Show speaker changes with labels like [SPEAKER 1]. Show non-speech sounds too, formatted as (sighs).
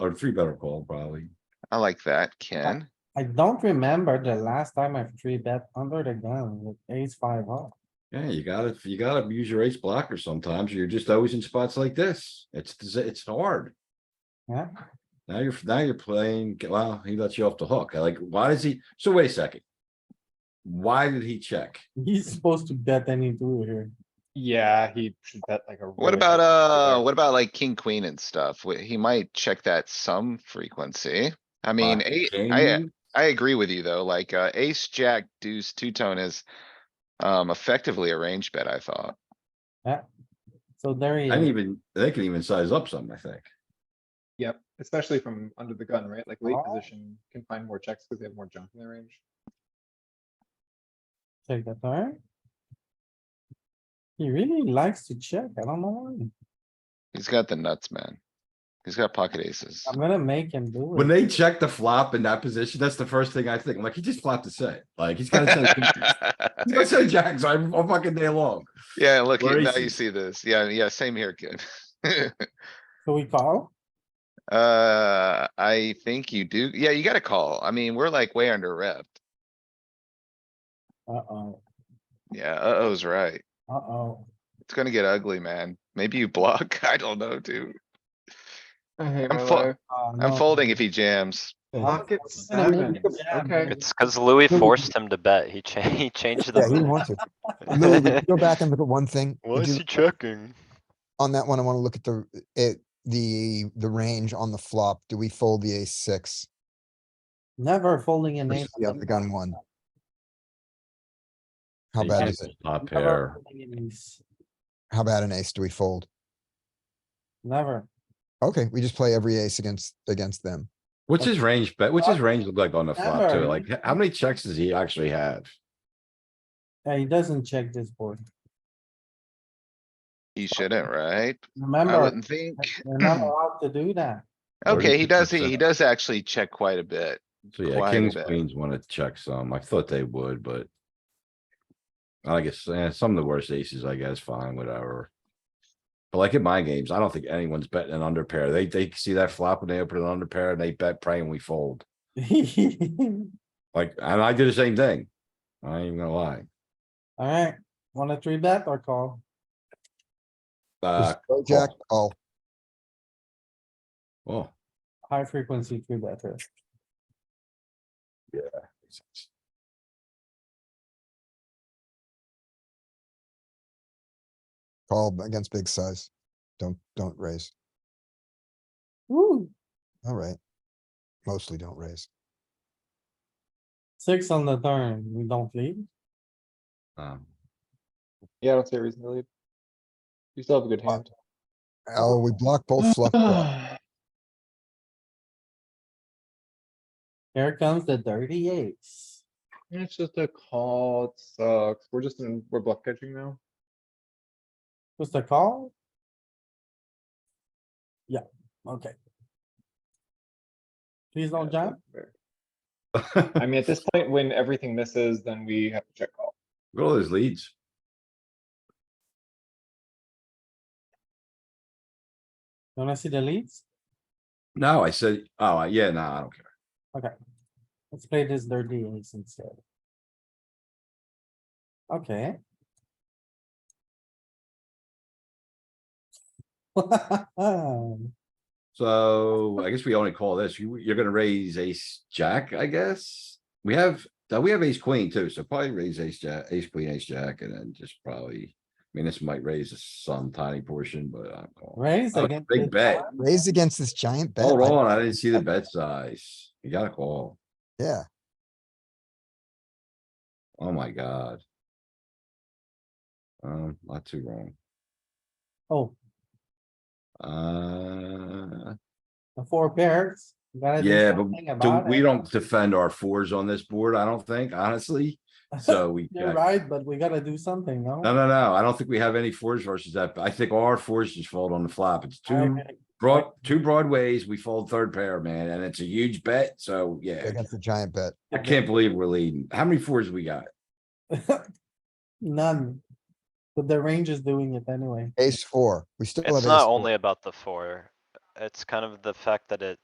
[SPEAKER 1] or three better call probably.
[SPEAKER 2] I like that, Ken.
[SPEAKER 3] I don't remember the last time I've three bet under the gun with ace five off.
[SPEAKER 1] Yeah, you gotta, you gotta use your ace blocker sometimes. or You're just always in spots like this. It's, it's hard.
[SPEAKER 3] Yeah, (laughs)
[SPEAKER 1] Now you're, now you're playing, wow, he lets you off the hook. I Like, why does he, so wait a second. Why did he check?
[SPEAKER 3] he's supposed to bet any two here.
[SPEAKER 4] Yeah, he should bet like a.
[SPEAKER 2] What
[SPEAKER 4] really
[SPEAKER 2] about,
[SPEAKER 4] big
[SPEAKER 2] uh,
[SPEAKER 4] figure.
[SPEAKER 2] what about like king, queen and stuff? Wh- He might check that some frequency. I mean,
[SPEAKER 1] Pocket
[SPEAKER 2] eight, I,
[SPEAKER 1] king?
[SPEAKER 2] I agree with you though, like, uh, ace, jack, deuce, two tone is. Um, effectively a range bet, I thought.
[SPEAKER 3] So there he
[SPEAKER 1] I didn't
[SPEAKER 3] is.
[SPEAKER 1] even, they can even size up some, I think.
[SPEAKER 4] Yep, especially from under the gun, right? Like late
[SPEAKER 3] Oh.
[SPEAKER 4] position can find more checks because they have more junk in their range.
[SPEAKER 3] Check the turn. He really likes to check. I don't know. why.
[SPEAKER 2] He's got the nuts, man. He's got pocket aces.
[SPEAKER 3] I'm gonna make him do
[SPEAKER 1] When
[SPEAKER 3] it.
[SPEAKER 1] they check the flop in that position, that's the first thing I think. I'm like, he just flopped a set. Like, he's gotta
[SPEAKER 2] (laughs)
[SPEAKER 1] say, he's gotta say jacks I'm all fucking day long.
[SPEAKER 2] Yeah, look,
[SPEAKER 1] Or
[SPEAKER 2] you- now you
[SPEAKER 1] aces.
[SPEAKER 2] see this. Yeah, yeah, same here, kid.
[SPEAKER 3] So we call?
[SPEAKER 2] (laughs) Uh, I think you do. Yeah, you gotta call. I mean, we're like way under repped.
[SPEAKER 3] Uh-oh,
[SPEAKER 2] Yeah, uh-oh's right.
[SPEAKER 3] uh-oh.
[SPEAKER 2] It's gonna get ugly, man. Maybe you block. (laughs) I don't know, dude. I'm fo-
[SPEAKER 3] Oh,
[SPEAKER 2] I'm
[SPEAKER 3] no.
[SPEAKER 2] folding if he jams.
[SPEAKER 4] Pocket
[SPEAKER 3] Yeah,
[SPEAKER 4] sevens,
[SPEAKER 3] yeah,
[SPEAKER 4] okay.
[SPEAKER 3] but-
[SPEAKER 5] It's cuz Louis
[SPEAKER 6] No, we-
[SPEAKER 5] forced him to bet. He cha- (laughs) he changed
[SPEAKER 6] Yeah, he
[SPEAKER 5] (laughs) the.
[SPEAKER 6] wants it. Lou, would you go back and look at
[SPEAKER 5] (laughs)
[SPEAKER 6] one thing.
[SPEAKER 5] Why
[SPEAKER 6] Would
[SPEAKER 5] is
[SPEAKER 6] you-
[SPEAKER 5] he checking?
[SPEAKER 6] On that one, I wanna look at the, it, the, the range on the flop. Do we fold the ace six?
[SPEAKER 3] Never folding an
[SPEAKER 6] versus
[SPEAKER 3] ace.
[SPEAKER 6] The other gun one. How
[SPEAKER 1] He
[SPEAKER 6] bad
[SPEAKER 1] just
[SPEAKER 6] is it?
[SPEAKER 1] Top
[SPEAKER 3] Never
[SPEAKER 1] pair.
[SPEAKER 3] folding an ace.
[SPEAKER 6] How bad an ace do we fold?
[SPEAKER 3] Never.
[SPEAKER 6] Okay, we just play every ace against, against them.
[SPEAKER 1] What's
[SPEAKER 2] Uh,
[SPEAKER 1] his range bet? What's his range look like on the flop too?
[SPEAKER 3] Never.
[SPEAKER 1] Like, h- how many checks does he actually have?
[SPEAKER 3] Yeah, he doesn't check this board.
[SPEAKER 2] He shouldn't, right? I
[SPEAKER 3] Remember,
[SPEAKER 2] wouldn't think.
[SPEAKER 3] they're not allowed to do that. (laughs)
[SPEAKER 2] Okay, he does, he, he
[SPEAKER 1] 32%.
[SPEAKER 2] does actually check quite a bit.
[SPEAKER 1] So yeah,
[SPEAKER 2] Quite a
[SPEAKER 1] kings,
[SPEAKER 2] bit.
[SPEAKER 1] queens wanna check some. I thought they would, but. I guess, eh, some of the worst aces, I guess, fine, whatever. But like in my games, I don't think anyone's betting an under pair. They, they see that flop and they open an under pair and they bet praying we fold. Like, and I do the same thing. I ain't even gonna lie.
[SPEAKER 3] Alright, wanna three bet or call?
[SPEAKER 1] Uh,
[SPEAKER 6] Just go Jack, call.
[SPEAKER 1] oh,
[SPEAKER 3] High frequency three better.
[SPEAKER 6] Call against big size. Don't, don't raise.
[SPEAKER 3] Woo,
[SPEAKER 6] Alright. Mostly don't raise.
[SPEAKER 3] six on the turn, we don't lead.
[SPEAKER 1] um, (laughs)
[SPEAKER 4] Yeah, I don't see a reason to leave. You still have a good hand.
[SPEAKER 6] Oh, we block both
[SPEAKER 5] (sighs)
[SPEAKER 6] fluff. draws.
[SPEAKER 3] Here comes the dirty ace.
[SPEAKER 4] (sighs) It's just a call, it sucks. We're just in, we're bluff catching now.
[SPEAKER 3] Just a call? Yeah, okay. Please
[SPEAKER 4] Yeah,
[SPEAKER 3] don't
[SPEAKER 4] it's not
[SPEAKER 3] jump.
[SPEAKER 4] fair. I mean, at this point, when everything misses, then we have to check call.
[SPEAKER 1] Look at all those leads.
[SPEAKER 3] You Wanna see the leads?
[SPEAKER 1] No, I said, oh, yeah, no, I don't care.
[SPEAKER 3] Let's play this dirty ace instead. Okay. (laughs)
[SPEAKER 1] So I guess we only call this, you, you're gonna raise ace, jack, I guess? We have, uh, we have ace queen too, so probably raise ace, jack, ace queen, ace jack, and then just probably. I mean, this might raise some tiny portion, but I'm calling.
[SPEAKER 3] Raise
[SPEAKER 1] Oh,
[SPEAKER 3] against.
[SPEAKER 1] Big
[SPEAKER 3] this
[SPEAKER 1] bet.
[SPEAKER 3] one?
[SPEAKER 6] Raise against this giant bet.
[SPEAKER 1] Hold
[SPEAKER 6] I-
[SPEAKER 1] on, I didn't see the bet size. You gotta call.
[SPEAKER 6] Yeah,
[SPEAKER 1] Oh my god. Um, not too wrong.
[SPEAKER 3] Oh,
[SPEAKER 1] Uh,
[SPEAKER 3] the four pairs. You gotta do
[SPEAKER 1] yeah,
[SPEAKER 3] something
[SPEAKER 1] but do-
[SPEAKER 3] about
[SPEAKER 1] we
[SPEAKER 3] it.
[SPEAKER 1] don't defend our fours on this board, I don't think, honestly. So we.
[SPEAKER 3] You're
[SPEAKER 1] check.
[SPEAKER 3] right, but we gotta do something, no?
[SPEAKER 1] No, no, no. I don't think we have any fours versus that. I think all our fours just fold on the flop. It's two
[SPEAKER 3] Okay,
[SPEAKER 1] broad, two broadways. We fold third pair, man, and it's a huge bet. So yeah,
[SPEAKER 6] against the giant bet.
[SPEAKER 1] I can't believe we're leading. How many fours we got?
[SPEAKER 3] None. But the range is doing it anyway.
[SPEAKER 6] Ace four. We still have.
[SPEAKER 5] It's
[SPEAKER 6] ace
[SPEAKER 5] not
[SPEAKER 6] four.
[SPEAKER 5] only about the four. It's kind of the fact that it